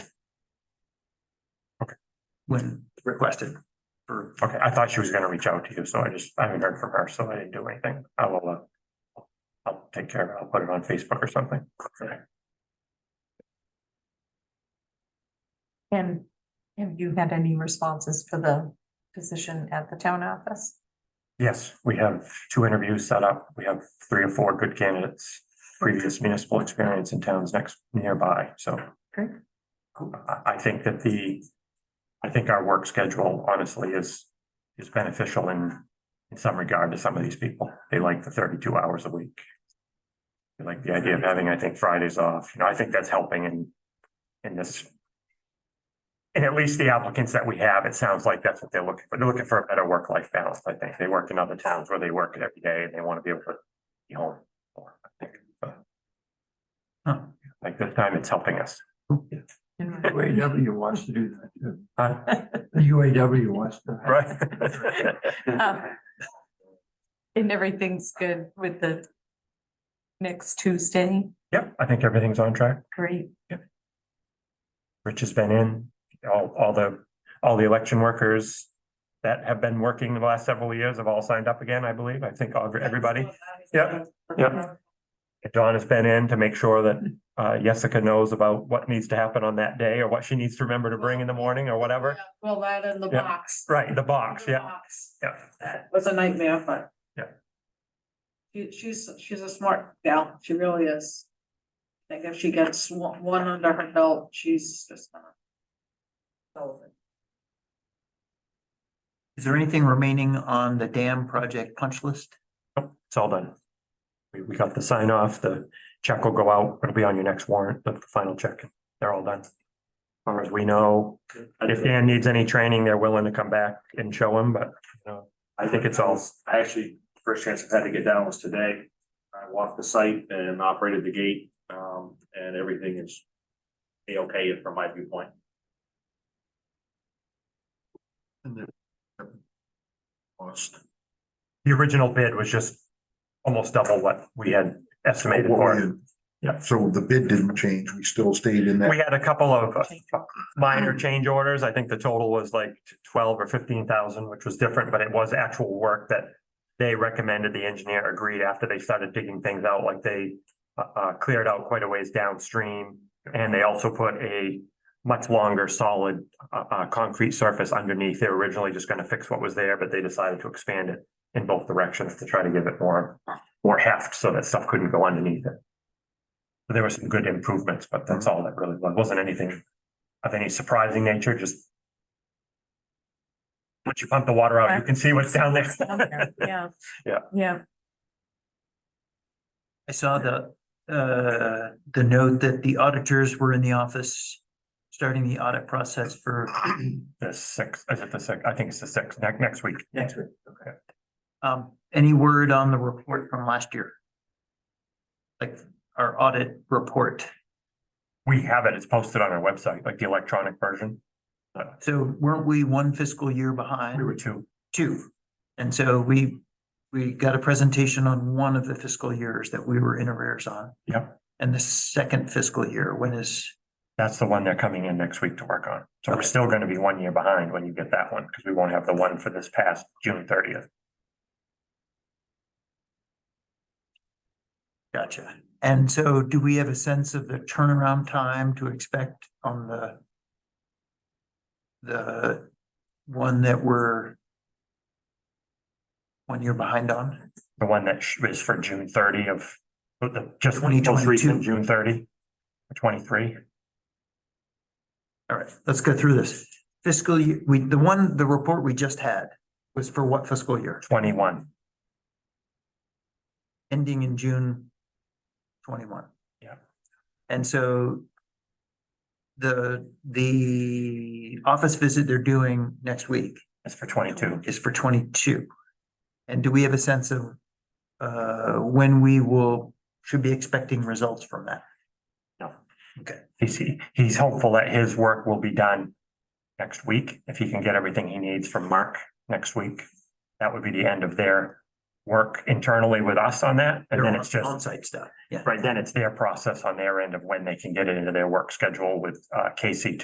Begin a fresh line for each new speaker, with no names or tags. when requested for
Okay, I thought she was gonna reach out to you, so I just, I haven't heard from her, so I didn't do anything. I will, uh. I'll take care of it. I'll put it on Facebook or something.
And have you had any responses for the position at the town office?
Yes, we have two interviews set up. We have three or four good candidates. Previous municipal experience in towns next nearby, so.
Great.
I, I think that the, I think our work schedule honestly is, is beneficial in, in some regard to some of these people. They like the thirty-two hours a week. They like the idea of having, I think, Fridays off. You know, I think that's helping in, in this. And at least the applicants that we have, it sounds like that's what they're looking for. They're looking for a better work-life balance, I think. They work in other towns where they work every day and they want to be able to be home. more, I think. But,
Huh.
Like this time, it's helping us.
Mm-hmm.
And
UAW wants to do that too.
Huh?
The UAW wants to.
Right.
um, and everything's good with the next Tuesday?
Yep, I think everything's on track.
Great.
Rich has been in, all, all the, all the election workers that have been working the last several years have all signed up again, I believe. I think all- everybody. Yep, yep. Dawn has been in to make sure that uh, Jessica knows about what needs to happen on that day or what she needs to remember to bring in the morning or whatever.
Well, that in the
Yeah.
box.
Right, the box,
The
yeah,
box.
yeah.
That was a nightmare, but.
Yeah.
She, she's, she's a smart gal, she really is. I think if she gets one, one under her belt, she's just gonna. solve it.
Is there anything remaining on the dam project punch list?
Nope, It's all done. We, we got the sign off, the check will go out, it'll be on your next warrant, the final check, they're all done. As far as we know, if Dan needs any training, they're willing to come back and show him, but, you know, I think it's all,
I actually, first chance I've had to get down was today. I walked the site and operated the gate, um, and everything is A-okay from my viewpoint.
Lost.
the original bid was just almost double what we had estimated for. it. Yeah.
So the bid didn't change, we still stayed in
We
that.
had a couple of uh, minor change orders. I think the total was like twelve or fifteen thousand, which was different, but it was actual work that they recommended the engineer agreed after they started digging things out, like they uh, uh, cleared out quite a ways downstream. And they also put a much longer solid, uh, uh, concrete surface underneath. They were originally just gonna fix what was there, but they decided to expand it in both directions to try to give it more, more heft so that stuff couldn't go underneath it. There were some good improvements, but that's all that really was. Wasn't anything of any surprising nature, just once you pump the water out, you can see what's down there.
Yeah.
Yeah.
Yeah,
I saw the, uh, the note that the auditors were in the office, starting the audit process for
The sixth, is it the sixth? I think it's the sixth, next, next week.
next week. Um, any word on the report from last year? Like our audit report.
We have it, it's posted on our website, like the electronic version.
So weren't we one fiscal year
We
behind?
were two.
Two. And so we, we got a presentation on one of the fiscal years that we were in arrears on.
Yep.
And the second fiscal year, when is,
That's the one they're coming in next week to work on. So we're
Okay.
still gonna be one year behind when you get that one, because we won't have the one for this past June thirtieth.
gotcha. And so do we have a sense of the turnaround time to expect on the the one that we're one year behind on?
The one that sh- is for June thirty of, but the, just the most
2022.
recent June thirty, twenty-three.
All right, let's go through this. Fiscal year, we, the one, the report we just had was for what fiscal year?
21.
Ending in June twenty-one.
Yeah.
And so the, the office visit they're doing next week
It's for twenty-two.
is for twenty-two. And do we have a sense of uh, when we will, should be expecting results from that?
He's, he- he's hopeful that his work will be done next week, if he can get everything he needs from Mark next week. That would be the end of their work internally with us on that, and then it's
Their
just,
On-site stuff, yeah.
right, then it's their process on their end of when they can get it into their work schedule with uh Casey